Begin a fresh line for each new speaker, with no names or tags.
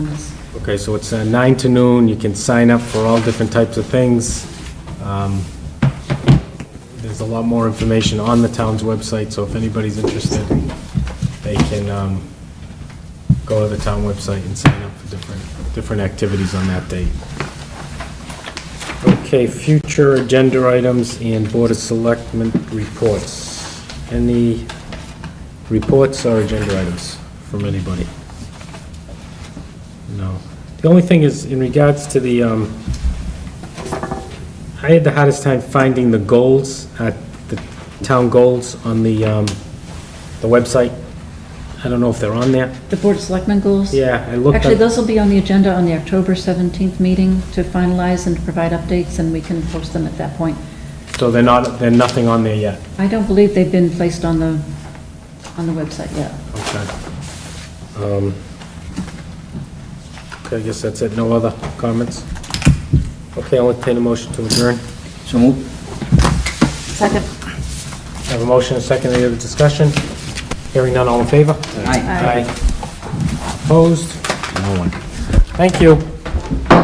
Okay, so it's uh, nine to noon, you can sign up for all different types of things. Um, There's a lot more information on the town's website, so if anybody's interested, they can um, go to the town website and sign up for different, different activities on that date. Okay, future agenda items and Board of Selectmen reports. Any reports or agenda items from anybody? No. The only thing is, in regards to the, um, I had the hardest time finding the goals, uh, the town goals on the, um, the website. I don't know if they're on there.
The Board of Selectmen goals?
Yeah, I looked
Actually,
up,
those will be on the agenda on the October 17th meeting to finalize and to provide updates, and we can post them at that point.
so they're not, they're nothing on there yet.
I don't believe they've been placed on the, on the website yet.
Okay. Um, Okay, I guess that's it. No other comments? Okay, I'll entertain a motion to adjourn.
So move.
Second.
Have a motion, a second, any other discussion? Hearing none, all in favor? 哎
Aye.
Opposed?
No one.
Thank you.